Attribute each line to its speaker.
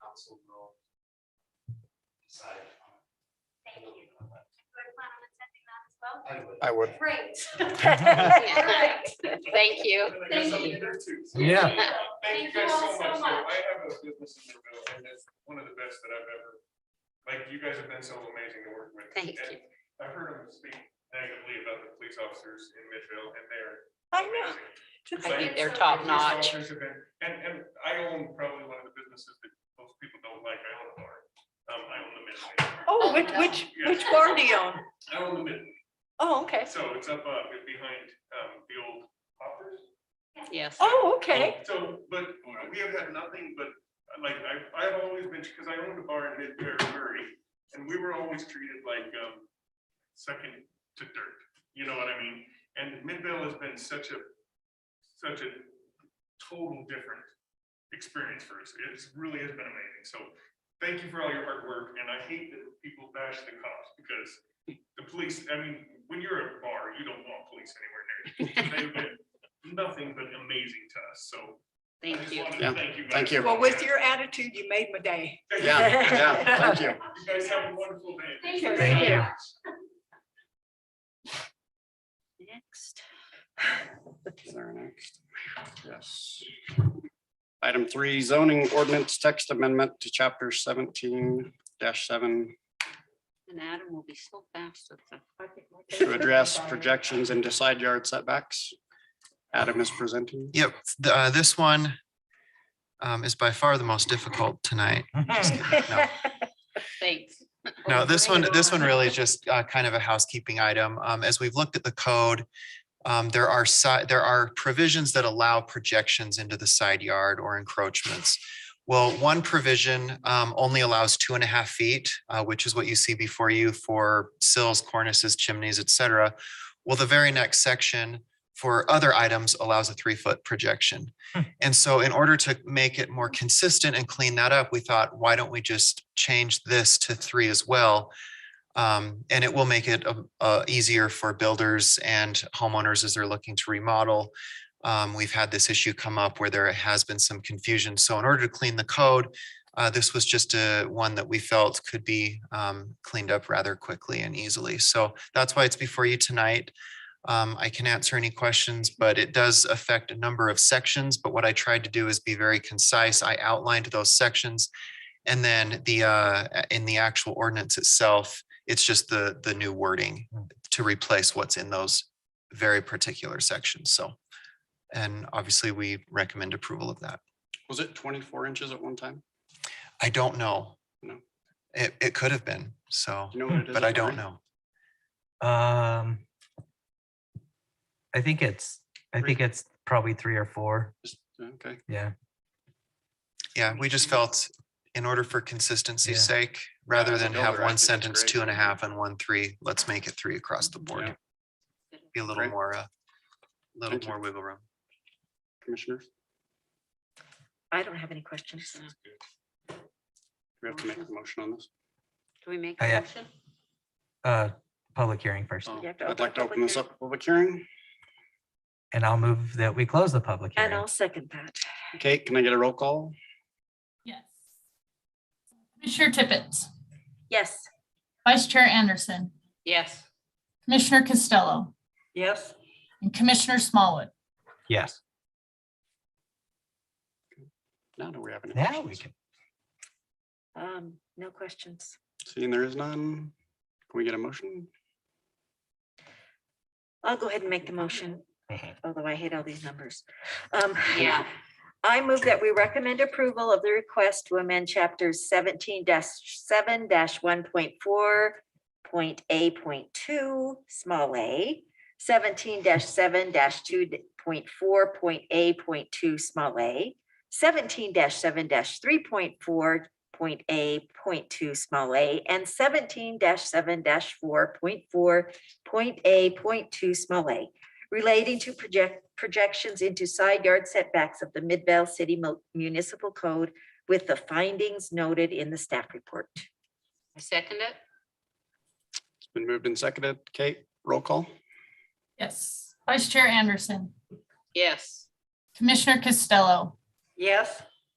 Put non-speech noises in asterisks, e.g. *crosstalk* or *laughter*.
Speaker 1: council will decide.
Speaker 2: Thank you. Do I plan on attending that as well?
Speaker 1: I
Speaker 3: Uh,
Speaker 1: would.
Speaker 4: I would.
Speaker 2: Great.
Speaker 3: *laughs*
Speaker 2: All
Speaker 3: Thank
Speaker 2: right.
Speaker 3: you.
Speaker 1: And I got
Speaker 2: Thank
Speaker 1: something
Speaker 2: you.
Speaker 1: there too, so-
Speaker 4: Yeah.
Speaker 1: Thank you guys so much. though. I have a business in Monroe and it's one of the best that I've ever, like, you guys have been so amazing to work with.
Speaker 3: Thank
Speaker 1: And
Speaker 3: you.
Speaker 1: I've heard them speak negatively about the police officers in Midvale and they're
Speaker 5: I know.
Speaker 1: amazing.
Speaker 5: Just-
Speaker 3: I
Speaker 1: Like,
Speaker 3: think they're
Speaker 1: the
Speaker 3: top
Speaker 1: police
Speaker 3: notch.
Speaker 1: officers have been- And, and I own probably one of the businesses that most people don't like. I own a bar. Um, I own the Midway.
Speaker 5: Oh, which, which, which bar do you own?
Speaker 1: I own the Midway.
Speaker 5: Oh, okay.
Speaker 1: So it's up, uh, behind, um, the old hoppers.
Speaker 3: Yes.
Speaker 5: Oh, okay.
Speaker 1: So, but we have had nothing but, like, I, I've always been, because I owned a bar in mid-Perry, Missouri, and we were always treated like, um, second to dirt, you know what I mean? And Midvale has been such a, such a total different experience for us. It's really has been amazing. So thank you for all your hard work, and I hate that people bash the cops because the police, I mean, when you're at a bar, you don't want police anywhere near you. They've been nothing but amazing to us, so. I
Speaker 3: Thank
Speaker 1: just
Speaker 3: you.
Speaker 1: wanted to
Speaker 4: Yeah,
Speaker 1: Thank you. guys.
Speaker 4: thank you.
Speaker 5: Well, with your attitude, you made my day.
Speaker 1: Thank you.
Speaker 4: Yeah, yeah, thank *laughs* you.
Speaker 1: You guys have a wonderful day.
Speaker 2: Thank you
Speaker 5: Thank
Speaker 2: so
Speaker 5: you.
Speaker 2: much.
Speaker 3: Next.
Speaker 4: Is there next? Yes. Item three, zoning ordinance text amendment to chapter seventeen seven
Speaker 3: And Adam will be so fast with the.
Speaker 4: to
Speaker 3: *laughs*
Speaker 4: address projections into side yard setbacks. Adam is presenting.
Speaker 6: Yep, th- uh, this one um, is by far the most difficult tonight.
Speaker 3: Thanks. Oh,
Speaker 6: No, this one, this one really is just uh, kind of a housekeeping item. Um, As we've looked at the code, um, there are side, there are provisions that allow projections into the side yard or encroachments. Well, one provision um, only allows two and a half feet, uh, which is what you see before you for sills, cornices, chimneys, et cetera. Well, the very next section for other items allows a three-foot projection. And so in order to make it more consistent and clean that up, we thought, why don't we just change this to three as well? Um, and it will make it um, uh, easier for builders and homeowners as they're looking to remodel. Um, we've had this issue come up where there has been some confusion. So in order to clean the code, uh, this was just a one that we felt could be um, cleaned up rather quickly and easily. So that's why it's before you tonight. Um, I can answer any questions, but it does affect a number of sections, but what I tried to do is be very concise. I outlined those sections. And then the, uh, in the actual ordinance itself, it's just the, the new wording
Speaker 4: Hmm.
Speaker 6: to replace what's in those very particular sections, so. And obviously, we recommend approval of that.
Speaker 4: Was it twenty-four inches at one time?
Speaker 6: I don't know.
Speaker 4: No.
Speaker 6: It, it could have been, so,
Speaker 4: Do you know what it is
Speaker 6: but I
Speaker 4: at
Speaker 6: don't
Speaker 4: three?
Speaker 6: know.
Speaker 7: Um, I think it's, I
Speaker 4: Three.
Speaker 7: think it's probably three or four.
Speaker 4: Just- Okay,
Speaker 7: Yeah.
Speaker 6: Yeah, we just felt in order for consistency's
Speaker 7: Yeah.
Speaker 6: sake, rather
Speaker 4: as a
Speaker 6: than have
Speaker 4: builder, I think
Speaker 6: one
Speaker 4: it's
Speaker 6: sentence,
Speaker 4: great.
Speaker 6: two and a half and one, three, let's make it three across the board. Be a little
Speaker 4: Great.
Speaker 6: more, a little
Speaker 4: Thank you.
Speaker 6: more wiggle room.
Speaker 4: commissioners,
Speaker 3: I don't have any questions. now.
Speaker 4: we have to make a motion on this.
Speaker 3: Do we make
Speaker 7: Oh,
Speaker 3: a
Speaker 7: yeah.
Speaker 3: motion?
Speaker 7: Uh, public hearing first,
Speaker 4: Oh,
Speaker 3: You have to
Speaker 4: I'd
Speaker 3: open
Speaker 4: like to
Speaker 3: public
Speaker 4: open this
Speaker 3: hearing.
Speaker 4: up for public hearing.
Speaker 7: and I'll move that we close the public
Speaker 3: And
Speaker 7: hearing.
Speaker 3: I'll second that.
Speaker 4: Okay, can I get a roll call?
Speaker 8: Yes. Commissioner Tippett,
Speaker 3: Yes.
Speaker 8: Vice Chair Anderson,
Speaker 3: Yes.
Speaker 8: Commissioner Costello,
Speaker 5: *laughs* Yes,
Speaker 8: and Commissioner Smallwood.
Speaker 7: Yes,
Speaker 4: Now, do we have any?
Speaker 7: now
Speaker 4: questions?
Speaker 7: we can.
Speaker 3: Um, no questions.
Speaker 4: Seeing there is none, can we get a motion?
Speaker 3: I'll go ahead and make the motion,
Speaker 7: Mhm.
Speaker 3: although I hate all these numbers. Um,
Speaker 2: Yeah.
Speaker 3: I move that we recommend approval of the request to amend chapters seventeen seven one point four point A point two, small a, seventeen seven two point four point A point two, small a, seventeen seven three point four point A point two, small a, and seventeen seven four point four point A point two, small a, relating to project projections into side yard setbacks of the Midvale City Mo- Municipal Code with the findings noted in the staff report.
Speaker 9: I second it.
Speaker 4: It's been moved and seconded. Kate, roll call?
Speaker 8: Yes. Vice Chair Anderson,
Speaker 9: Yes.
Speaker 8: Commissioner Costello,
Speaker 5: yes,